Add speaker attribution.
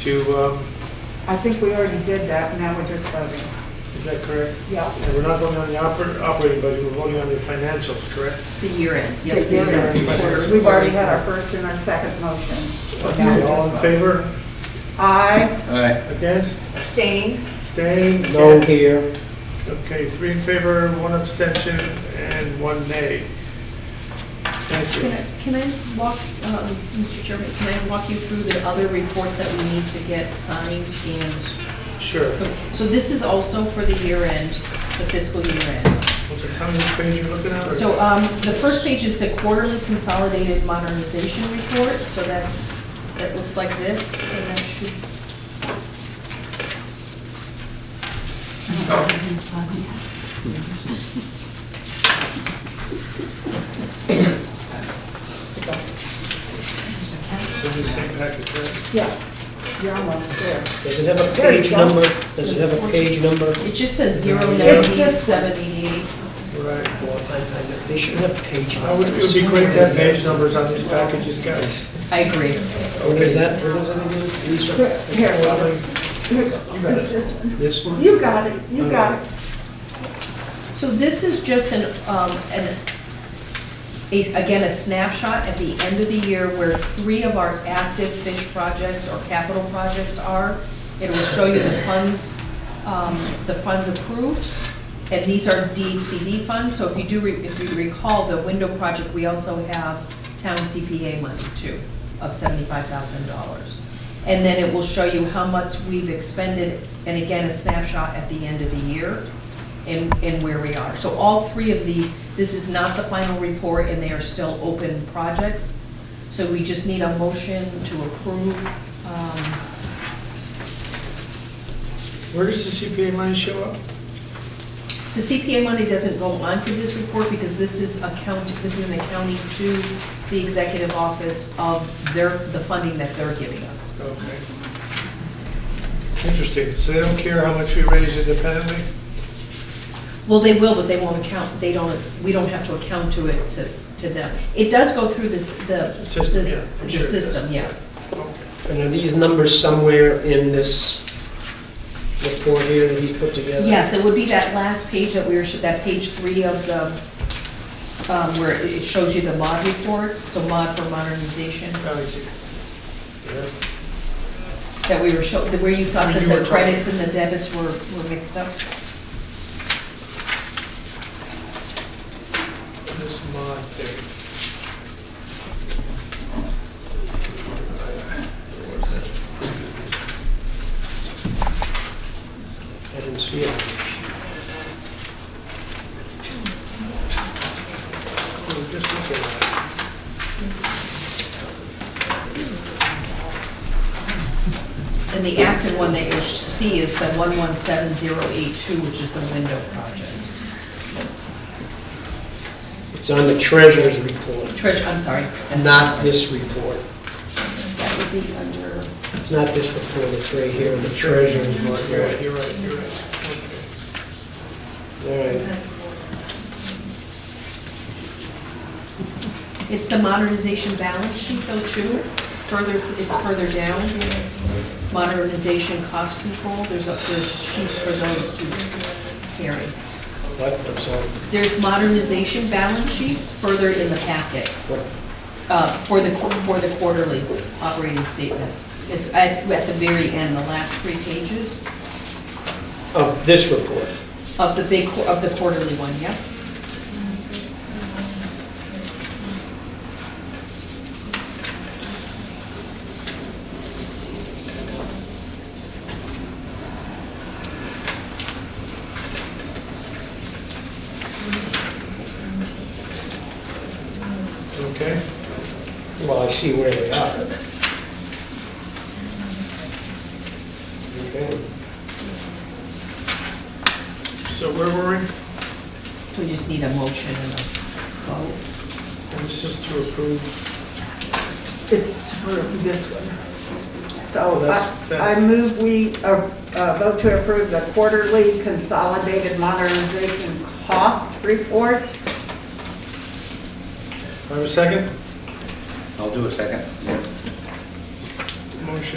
Speaker 1: to, um,
Speaker 2: I think we already did that, now we're just voting.
Speaker 1: is that correct?
Speaker 2: Yeah.
Speaker 1: And we're not voting on the oper- operating budget, we're voting on the financials, correct?
Speaker 3: The year end.
Speaker 2: The year end. We've already had our first and our second motion. So now
Speaker 1: Okay,
Speaker 2: we
Speaker 1: All
Speaker 2: just
Speaker 1: in
Speaker 2: vote.
Speaker 1: favor?
Speaker 2: Aye,
Speaker 4: Aye.
Speaker 1: Against?
Speaker 3: Abstain.
Speaker 1: Staying?
Speaker 4: No here.
Speaker 1: Okay, three in favor, one abstention, and one nay. Thank
Speaker 5: Can
Speaker 1: you.
Speaker 5: I- can I walk, um, Mr. Chairman, can I walk you through the other reports that we need to get signed and,
Speaker 1: Sure.
Speaker 5: so this is also for the year end, the fiscal year end.
Speaker 1: Was it on this page you're looking at? or-
Speaker 5: So um, the first page is the quarterly consolidated modernization report, so that's, that looks like this, and that should,
Speaker 1: It's in the same package, right?
Speaker 2: yeah, you're almost there.
Speaker 6: Does it have a
Speaker 2: There you
Speaker 6: page
Speaker 2: go.
Speaker 6: number? Does it have a page number?
Speaker 5: it just says zero
Speaker 2: It's
Speaker 5: nineteen
Speaker 2: just-
Speaker 5: seventy-eight.
Speaker 1: Right.
Speaker 6: Well, I- I- They should have page
Speaker 1: I would- Oh, It
Speaker 6: numbers.
Speaker 1: would be great to have page numbers on these packages, guys.
Speaker 5: I agree.
Speaker 6: What is that? What is that again?
Speaker 2: Here,
Speaker 6: Lisa?
Speaker 2: here,
Speaker 1: Well,
Speaker 2: here, it's this one.
Speaker 6: This one?
Speaker 2: You got it, you got it.
Speaker 5: So this is just an, um, an, a- again, a snapshot at the end of the year where three of our active fish projects or capital projects are. It will show you the funds, um, the funds approved, and these are DHCD funds. So if you do, re- if you recall, the window project, we also have town CPA money too, of seventy-five thousand dollars. And then it will show you how much we've expended, and again, a snapshot at the end of the year and, and where we are. So all three of these, this is not the final report, and they are still open projects. So we just need a motion to approve. um,
Speaker 1: Where does the CPA money show up?
Speaker 5: The CPA money doesn't go onto this report because this is account, this is an accounting to the executive office of their, the funding that they're giving us.
Speaker 1: Okay. Interesting, so they don't care how much we raise independently?
Speaker 5: Well, they will, but they won't account, they don't, we don't have to account to it, to, to them. It does go through this, the.
Speaker 1: System,
Speaker 5: this-
Speaker 1: yeah, I'm sure
Speaker 5: The
Speaker 1: it does.
Speaker 5: system, yeah.
Speaker 1: Okay.
Speaker 6: And are these numbers somewhere in this report here that he put together?
Speaker 5: Yes, it would be that last page that we were, that page three of the, um, where it it shows you the mod report, so mod for modernization,
Speaker 1: Now I see. Yeah.
Speaker 5: that we were show, that where you thought that
Speaker 1: You were
Speaker 5: the
Speaker 1: talking-
Speaker 5: credits and the debits were, were mixed up.
Speaker 1: This mod thing. Where was that?
Speaker 6: I didn't see it.
Speaker 1: We were Oh, just looking at
Speaker 5: And the active one that you'll see is the 117082, which is the window project.
Speaker 6: It's on the treasurer's report,
Speaker 5: Treasure, I'm sorry. that's-
Speaker 6: not this report.
Speaker 5: That would be under,
Speaker 6: It's not this report, it's right here in the treasurer's
Speaker 1: it. You're right,
Speaker 6: report.
Speaker 1: you're right, you're right.
Speaker 6: All right.
Speaker 5: it's the modernization balance sheet though, too. Further, it's further down. Modernization cost control, there's, a- there's sheets for those to carry.
Speaker 6: What, I'm sorry.
Speaker 5: There's modernization balance sheets further in the packet.
Speaker 6: What?
Speaker 5: uh, for the, qu- for the quarterly operating statements. It's at, at the very end, the last three pages
Speaker 6: Of Oh, this report.
Speaker 5: of the big, qu- of the quarterly one, yeah?
Speaker 1: Okay. Okay.
Speaker 6: Well, I see where they are. Okay.
Speaker 1: So where were we?
Speaker 5: We just need a motion and a vote.
Speaker 1: This is to approve.
Speaker 2: It's through this one. So
Speaker 1: That's-
Speaker 2: I I move we uh, uh, vote to approve the quarterly consolidated modernization cost report.
Speaker 1: I have a second?
Speaker 4: I'll do a second.